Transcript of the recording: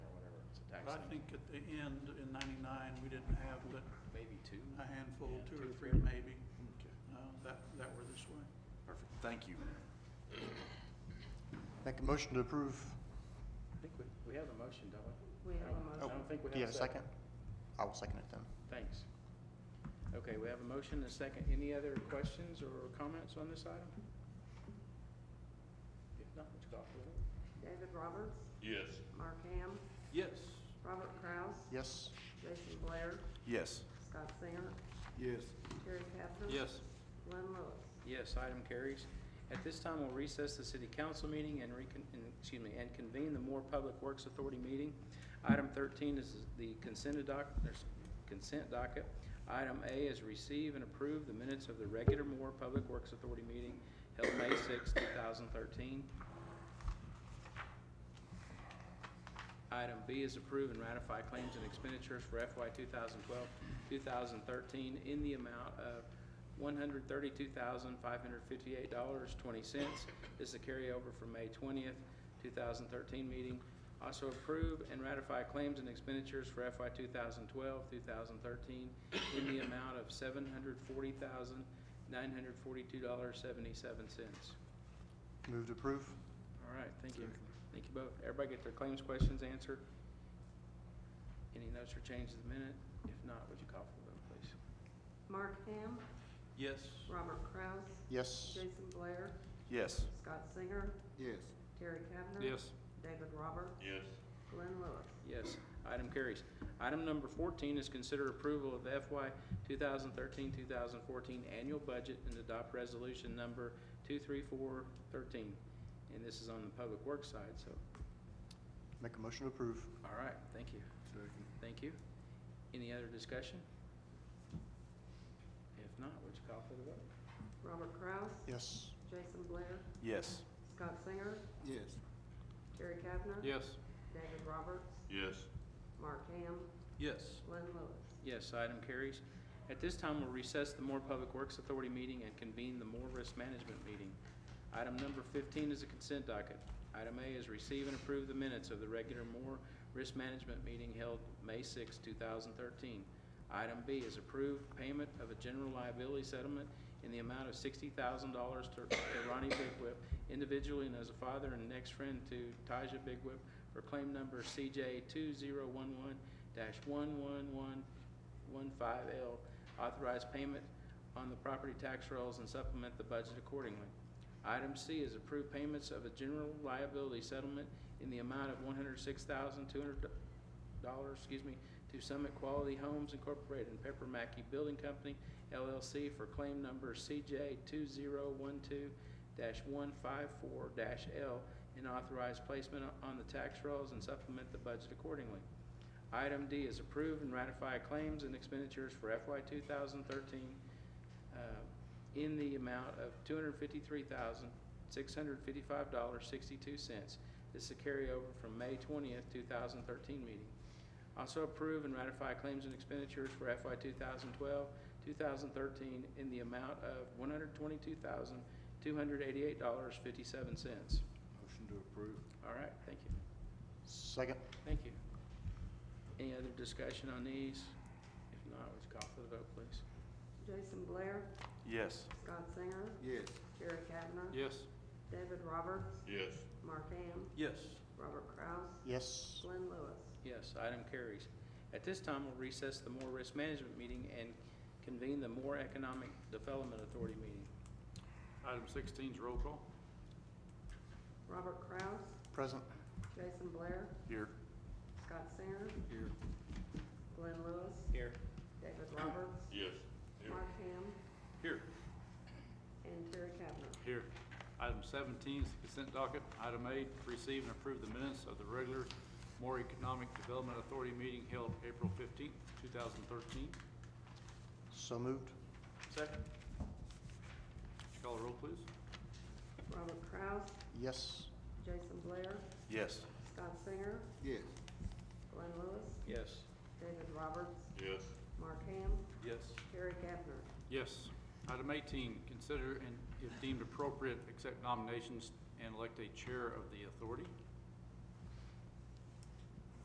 I think at the end in ninety-nine, we didn't have but Maybe two. a handful, Yeah, two two or or three three. maybe, uh, that, that were this way. Perfect. Thank you. Make a motion to approve. I think we, we have a motion, don't we? We have a I motion. don't think we Do you have have Oh, a second? I will second it then. Thanks. Okay, we have a motion and a second. Any other questions or comments on this item? If not, would you call for the vote? David Roberts. Yes. Mark Ham. Yes. Robert Kraus. Yes? Jason Blair. Yes. Scott Singer. Yes. Terry Kavner. Yes. Glenn Lewis. Yes, item carries. At this time, we'll recess the city council meeting and recon, and- excuse me, and convene the Moore Public Works Authority meeting. Item thirteen is the consent doc, there's consent docket. Item A is receive and approve the minutes of the regular Moore Public Works Authority meeting held May sixth, two thousand thirteen. Item B is approve and ratify claims and expenditures for FY 2012, 2013 in the amount of $132,558.20. This is a carryover from May 20th, 2013 meeting. Also approve and ratify claims and expenditures for FY 2012, 2013 in the amount of $740,942.77. Move to approve? All right, thank you. Thank you both. Everybody get their claims questions answered? Any notes or changes of the minute? If not, would you call for the vote, please? Mark Ham. Yes. Robert Kraus. Yes? Jason Blair. Yes. Scott Singer. Yes. Terry Kavner. David Roberts. Yes. Glenn Lewis. Yes, item carries. Item number fourteen is consider approval of the FY 2013-2014 annual budget and adopt resolution number two-three-four-thirteen. And this is on the public works side, so, Make a motion to approve. all right, thank you. Thank you. Any other discussion? If not, would you call for the vote? Robert Kraus. Yes? Jason Blair. Yes. Scott Singer. Yes. Terry Kavner. Yes. David Roberts. Yes. Mark Ham. Yes. Glenn Lewis. Yes, item carries. At this time, we'll recess the Moore Public Works Authority meeting and convene the Moore Risk Management meeting. Item number fifteen is a consent docket. Item A is receive and approve the minutes of the regular Moore Risk Management meeting held May 6, thousand thirteen. Item B is approve payment of a general liability settlement in the amount of sixty thousand dollars to Ronnie Big Whip individually and as a father and next friend to Taja Big Whip for claim number CJ two zero one one one one one 15L, authorize payment on the property tax rolls and supplement the budget accordingly. Item C is approve payments of a general liability settlement in the amount of $106,200, excuse me, to Summit Quality Homes Incorporated and Pepper Mackey Building Company LLC for claim number CJ 2012-154-L and authorize placement on the tax rolls and supplement the budget accordingly. Item D is approve and ratify claims and expenditures for FY 2013 uh, in the amount of $253,655.62. This is a carryover from May 20th, 2013 meeting. Also approve and ratify claims and expenditures for FY 2012, 2013 in the amount of $122,288.57. Motion to approve. All right, thank you. Second? Thank you. Any other discussion on these? If not, would you call for the vote, please? Jason Blair. Yes. Scott Singer. Yes. Terry Kavner. Yes. David Roberts. Yes. Mark Ham. Yes. Robert Kraus. Yes? Glenn Lewis. Yes, item carries. At this time, we'll recess the Moore Risk Management meeting and convene the Moore Economic Development Authority meeting. Item sixteen's roll call. Robert Kraus. Present? Jason Blair. Here. Scott Singer. Here. Glenn Lewis. Here. David Roberts. Yes. Mark Ham. Here. And Terry Kavner. Here. Item seventeen is the consent docket. Item eight, receive and approve the minutes of the regular Moore Economic Development Authority meeting held April fifteenth, two thousand thirteen. So moved? Second. Call the roll, please. Robert Kraus. Yes? Jason Blair. Yes. Scott Singer. Yes. Glenn Lewis. Yes. David Roberts. Yes. Mark Ham. Yes. Terry Kavner. Yes. Item 18, consider and if deemed appropriate, accept nominations and elect a chair of the authority.